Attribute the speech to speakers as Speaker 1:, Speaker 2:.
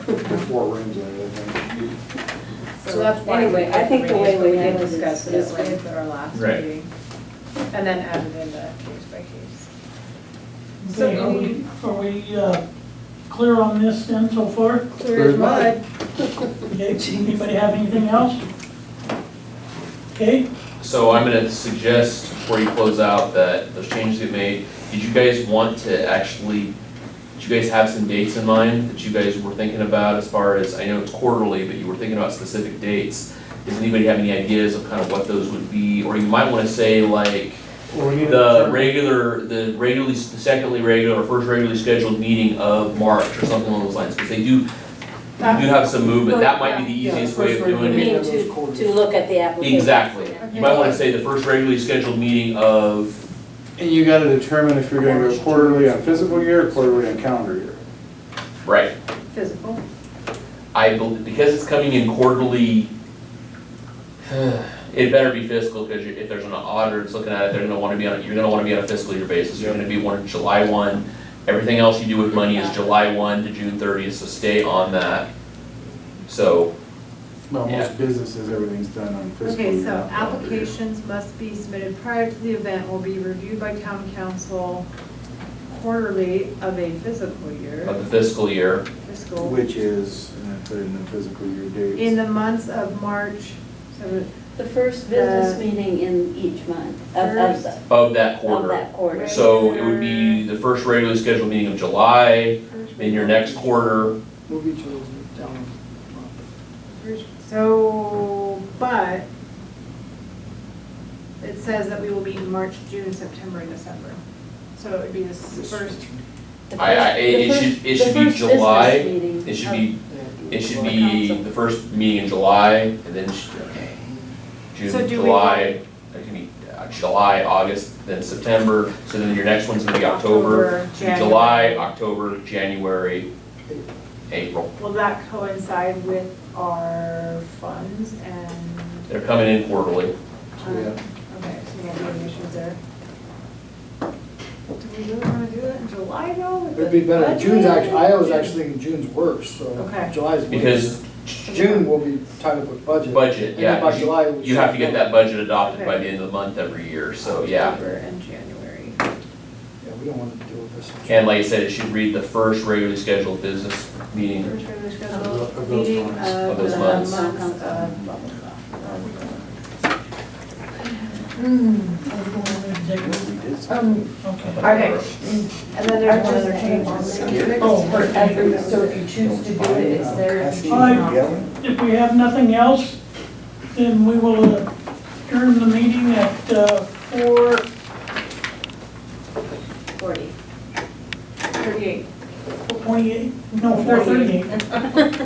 Speaker 1: Four rooms in it, I think.
Speaker 2: So that's why. we
Speaker 3: Anyway, I
Speaker 2: did
Speaker 3: think the
Speaker 2: three,
Speaker 3: way
Speaker 2: is we
Speaker 3: we
Speaker 2: did
Speaker 3: handled
Speaker 2: discuss
Speaker 3: this
Speaker 2: it
Speaker 3: is
Speaker 2: at length
Speaker 3: good.
Speaker 2: at our last
Speaker 4: Right.
Speaker 2: meeting. And then added in the case by case. So
Speaker 5: Okay, are we, are we uh, clear on this then so far?
Speaker 2: Clear as mud.
Speaker 5: Okay, anybody have anything else? Okay,
Speaker 4: So I'm gonna suggest before you close out that those changes get made, did you guys want to actually, did you guys have some dates in mind that you guys were thinking about as far as, I know it's quarterly, but you were thinking about specific dates? Does anybody have any ideas of kind of what those would be, or you might wanna say like,
Speaker 1: Well, we need to
Speaker 4: the
Speaker 1: determine-
Speaker 4: regular, the regularly, the secondly regular, or first regularly scheduled meeting of March, or something along those lines, because they do, you do
Speaker 2: Uh,
Speaker 4: have some movement, that might be the
Speaker 1: Yeah,
Speaker 4: easiest
Speaker 1: first
Speaker 4: way of doing it.
Speaker 1: regular
Speaker 3: You mean
Speaker 1: Yeah,
Speaker 3: to,
Speaker 1: those quarters.
Speaker 3: to look at the application?
Speaker 4: Exactly. You might wanna say the first regularly scheduled meeting of,
Speaker 1: And you gotta determine if you're gonna go quarterly on physical year or quarterly on calendar year.
Speaker 4: right,
Speaker 2: Physical.
Speaker 4: I, bel- because it's coming in quarterly, it better be fiscal, cause you- if there's an auditor that's looking at it, they're gonna wanna be on, you're gonna wanna be on a fiscal year basis, you're gonna be one July one. Everything else you do with money is July one to June thirtieth, so stay on that. So,
Speaker 1: Well,
Speaker 4: Yeah.
Speaker 1: most businesses, everything's done on fiscal year.
Speaker 2: Okay, so
Speaker 1: not calendar year.
Speaker 2: applications must be submitted prior to the event, will be reviewed by town council quarterly of a physical year,
Speaker 4: of the fiscal year,
Speaker 2: fiscal,
Speaker 1: Which is, and I put in the physical year
Speaker 2: in
Speaker 1: dates.
Speaker 2: the months of March, so
Speaker 3: The first business meeting in each month of, of, the-
Speaker 4: of that
Speaker 3: of
Speaker 4: quarter.
Speaker 3: that quarter.
Speaker 2: Right.
Speaker 4: So it would be the first regularly scheduled meeting of July, then your next quarter,
Speaker 6: Move each of those down.
Speaker 2: So, but it says that we will meet in March, June, September, and December. So it would be this first,
Speaker 3: The
Speaker 4: I- I-
Speaker 3: first-
Speaker 4: it-
Speaker 3: the
Speaker 4: it
Speaker 3: first-
Speaker 4: should- it
Speaker 3: the
Speaker 4: should be
Speaker 3: first business
Speaker 4: July.
Speaker 3: meeting
Speaker 4: it should
Speaker 3: of-
Speaker 4: be It should be the first meeting in July, and then, sh- okay,
Speaker 2: So
Speaker 4: June,
Speaker 2: do we
Speaker 4: July, it could be uh, July, August, then September, so then your next one's gonna be October.
Speaker 2: October,
Speaker 4: So July, October, January, April,
Speaker 2: will that coincide with our funds and, um,
Speaker 4: they're coming in quarterly.
Speaker 1: Yeah.
Speaker 2: okay, so we'll have issues there. Do we really wanna do it in July though? with
Speaker 6: It'd
Speaker 2: the
Speaker 6: be better,
Speaker 2: budget?
Speaker 6: June's actually, I was actually thinking June's worse,
Speaker 2: Okay.
Speaker 6: so July's. way
Speaker 4: Because-
Speaker 6: better. June will be tied up with budget.
Speaker 4: Budget,
Speaker 6: And
Speaker 4: yeah,
Speaker 6: then by
Speaker 4: 'cause you-
Speaker 6: July. we
Speaker 4: You have to get
Speaker 6: should-
Speaker 4: that budget adopted by the end of the month every year, so yeah.
Speaker 2: October and January.
Speaker 6: Yeah, we don't want to deal with this. in
Speaker 4: And like I said, it should read the first regularly scheduled business meeting,
Speaker 2: First regular
Speaker 1: Of
Speaker 2: scheduled
Speaker 1: those
Speaker 2: meeting
Speaker 1: months.
Speaker 2: of
Speaker 4: Of those
Speaker 2: the
Speaker 4: months.
Speaker 2: months of.
Speaker 3: blah, blah, blah.
Speaker 1: um,
Speaker 5: executive,
Speaker 1: We did some-
Speaker 7: Um,
Speaker 5: okay.
Speaker 7: okay.
Speaker 2: And then
Speaker 7: I
Speaker 2: there's one
Speaker 7: just
Speaker 2: other change on
Speaker 7: skip
Speaker 2: the.
Speaker 5: Oh,
Speaker 7: for every, so if you choose to do it,
Speaker 1: um,
Speaker 7: it's there. If you choose
Speaker 5: Fine.
Speaker 7: not to.
Speaker 5: If we have nothing else, then we will uh, adjourn the meeting at uh, four
Speaker 3: Forty.
Speaker 2: Thirty-eight.
Speaker 5: twenty-eight, no, four thirty-eight.